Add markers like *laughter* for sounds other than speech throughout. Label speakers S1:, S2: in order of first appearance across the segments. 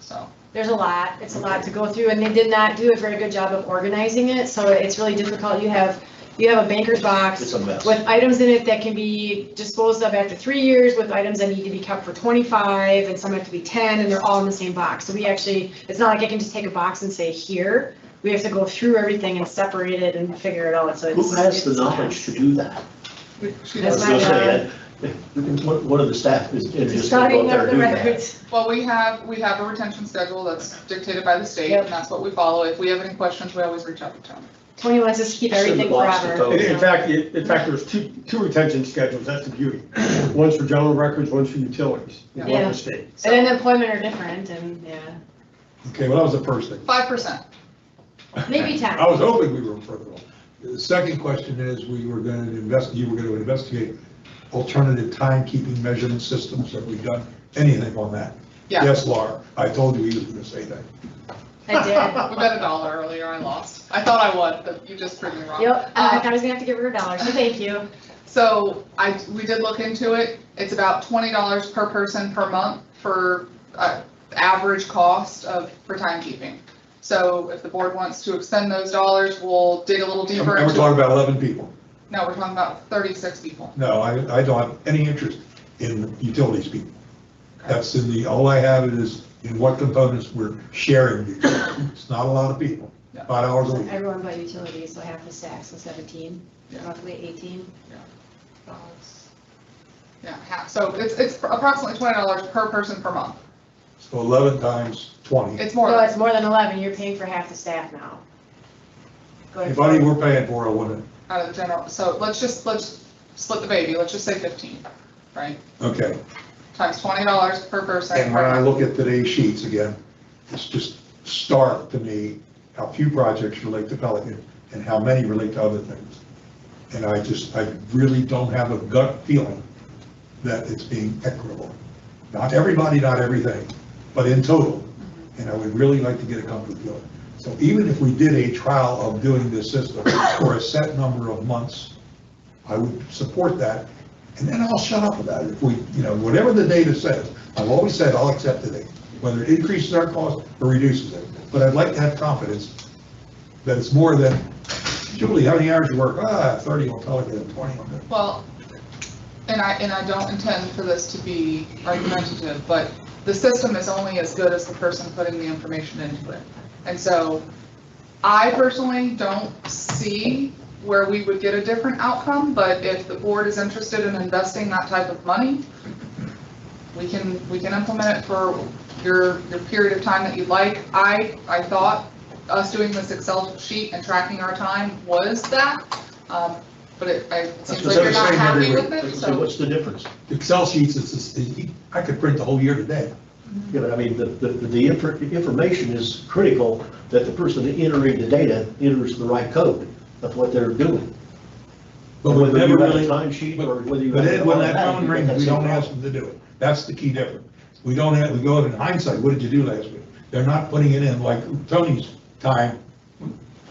S1: So there's a lot, it's a lot to go through, and they did not do a very good job of organizing it, so it's really difficult. You have, you have a banker's box
S2: It's a mess.
S1: with items in it that can be disposed of after three years, with items that need to be kept for 25, and some have to be 10, and they're all in the same box. So we actually, it's not like I can just take a box and say, here, we have to go through everything and separate it and figure it out, so it's.
S2: Who has the
S1: it's-
S2: knowledge to do that? I
S1: That's
S2: was
S1: my
S2: gonna
S1: job.
S2: say that, one one of the staff is, is just gonna go
S1: Starting
S2: up there
S1: up
S2: and
S1: the
S2: do that.
S1: records.
S3: Well, we have, we have a retention schedule that's dictated by the state,
S1: Yep.
S3: and that's what we follow. If we have any questions, we always reach out to Tony.
S1: Tony wants us to keep
S2: Send the
S1: everything
S2: box to
S1: forever.
S2: Tony.
S4: In
S1: so.
S4: in fact, it- in fact, there's two, two retention schedules, that's the *clears throat* beauty. One's for general records, one's for utilities, in
S1: Yeah.
S4: one state.
S1: And then employment are different, and, yeah,
S5: Okay, well, that was the first thing.
S3: Five percent.
S1: maybe 10.
S5: I was hoping we were further along. The second question is, we were going to invest, you were going to investigate alternative timekeeping measurement systems. Have we done anything on that?
S3: Yeah.
S5: Yes, Laura, I told you he was going to say that.
S1: I did.
S3: *laughs* We bet a dollar earlier, I lost. I thought I won, but you just proved me wrong.
S1: Yep,
S3: Uh,
S1: I thought I was gonna have to give her a dollar, so thank you.
S3: So I, we did look into it. It's about twenty dollars per person per month for, uh, average cost of, for timekeeping. So if the board wants to extend those dollars, we'll dig a little
S5: And
S3: deeper
S5: we're
S3: into.
S5: talking about 11 people.
S3: No, we're talking about thirty-six people.
S5: No, I, I don't have any interest in utilities people. That's in the, all I have is in what components we're sharing. utilities. It's not a lot of people,
S3: Yeah.
S5: five hours a week.
S1: Everyone but utilities, so half the stack, so seventeen,
S3: Yeah.
S1: roughly eighteen.
S3: Yeah, half, so it's, it's approximately twenty dollars per person per month.
S5: So 11 times 20.
S3: It's more
S1: No,
S3: than,
S1: it's more than eleven, you're paying for half the staff now. Go ahead.
S5: If I we're paying for, I wouldn't.
S3: out of the general, so let's just, let's split the baby, let's just say fifteen, right?
S5: Okay,
S3: Times twenty dollars per person.
S5: and when I look at today's sheets again, it's just stark to me how few projects relate to Pelican and how many relate to other things. And I just, I really don't have a gut feeling that it's being equitable. Not everybody, not everything, but in total. And I would really like to get a comfort feeling. So even if we did a trial of doing this system for a set number of months, I would support that. And then I'll shut up about it. If we, you know, whatever the data says, I've always said I'll accept it, whether it increases our cost or reduces it. But I'd like to have confidence that it's more than, Julie, how many hours you work? Ah, 30 on Pelican, 20 on that.
S3: Well, and I, and I don't intend for this to be argumentative, but the system is only as good as the person putting the information into it. And so I personally don't see where we would get a different outcome, but if the board is interested in investing that type of money, we can, we can implement it for your, your period of time that you'd like. I, I thought us doing this Excel sheet and tracking our time was that, um, but it, I- it seems
S2: what
S3: like you're
S2: they're
S3: not
S5: saying
S3: happy
S5: everywhere.
S3: with
S2: Like I
S3: it,
S2: say,
S3: so.
S2: What's the difference?
S5: Excel sheets, it's, it's- I could print the whole year today.
S2: Yeah, but I mean, the, the, the infor- information is critical that the person entering the data enters the right code of what they're doing.
S5: But we
S2: Whether
S5: never
S2: you have a
S5: really,
S2: time sheet or whether you.
S5: but
S2: have
S5: it-
S2: it
S5: when that
S2: automatic,
S5: phone rings,
S2: that's
S5: we
S2: the
S5: don't
S2: problem.
S5: ask them to do it. That's the key difference. We don't have, we go in hindsight, what did you do last week? They're not putting it in like Tony's time.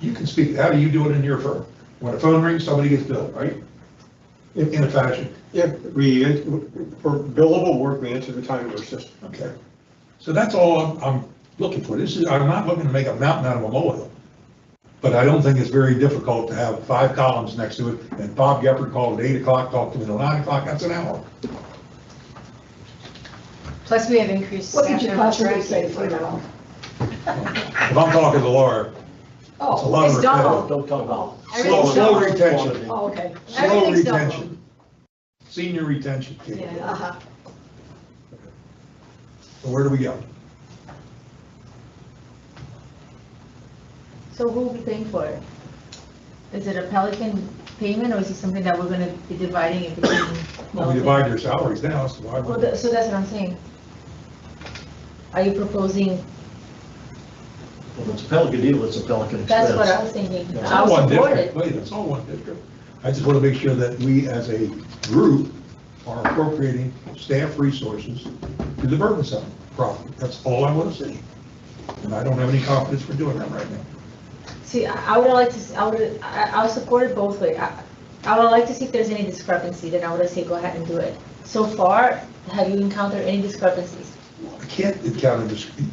S5: You can speak, how do you do it in your firm? When a phone rings, somebody gets billed, right? In, in a fashion,
S4: Yeah, we, for billable work, we answer the time of our system.
S5: okay. So that's all I'm, I'm looking for. This is, I'm not looking to make a mountain out of a molehill. But I don't think it's very difficult to have five columns next to it, and Bob Gepper called at eight o'clock, talked to him at nine o'clock, that's an hour.
S1: Plus, we have increased
S6: What
S1: staff.
S6: did you
S1: members,
S6: possibly
S1: right?
S6: say for now?
S5: If I'm talking to Laura, it's a
S6: Oh,
S5: lot of
S1: it's double.
S5: repetitive.
S2: Don't talk about.
S5: Slow,
S1: Everything's
S5: slow
S1: double.
S5: retention,
S6: oh, okay.
S5: slow
S1: Everything's double.
S5: retention. Senior retention. kid.
S1: Yeah.
S6: Uh-huh.
S5: So where do we go?
S7: So who will be paying for it? Is it a Pelican payment, or is it something that we're gonna be dividing in between?
S5: Well, we divide your salaries now, so why
S7: Well,
S5: would-
S7: tha- so that's what I'm saying. Are you proposing,
S2: If it's a Pelican deal, it's a Pelican expense.
S7: that's what I was thinking.
S2: Yeah.
S5: It's
S7: I
S5: all
S7: will
S5: one
S7: support
S5: district,
S7: it.
S5: wait, it's all one district. I just want to make sure that we as a group are appropriating staff resources to the burden center properly. That's all I want to see. And I don't have any confidence we're doing that right now.
S7: See, I I would like to, s- I would, I, I'll support it both ways. I I would like to see if there's any discrepancy, then I would say go ahead and do it. So far, have you encountered any discrepancies?
S5: I can't encounter this,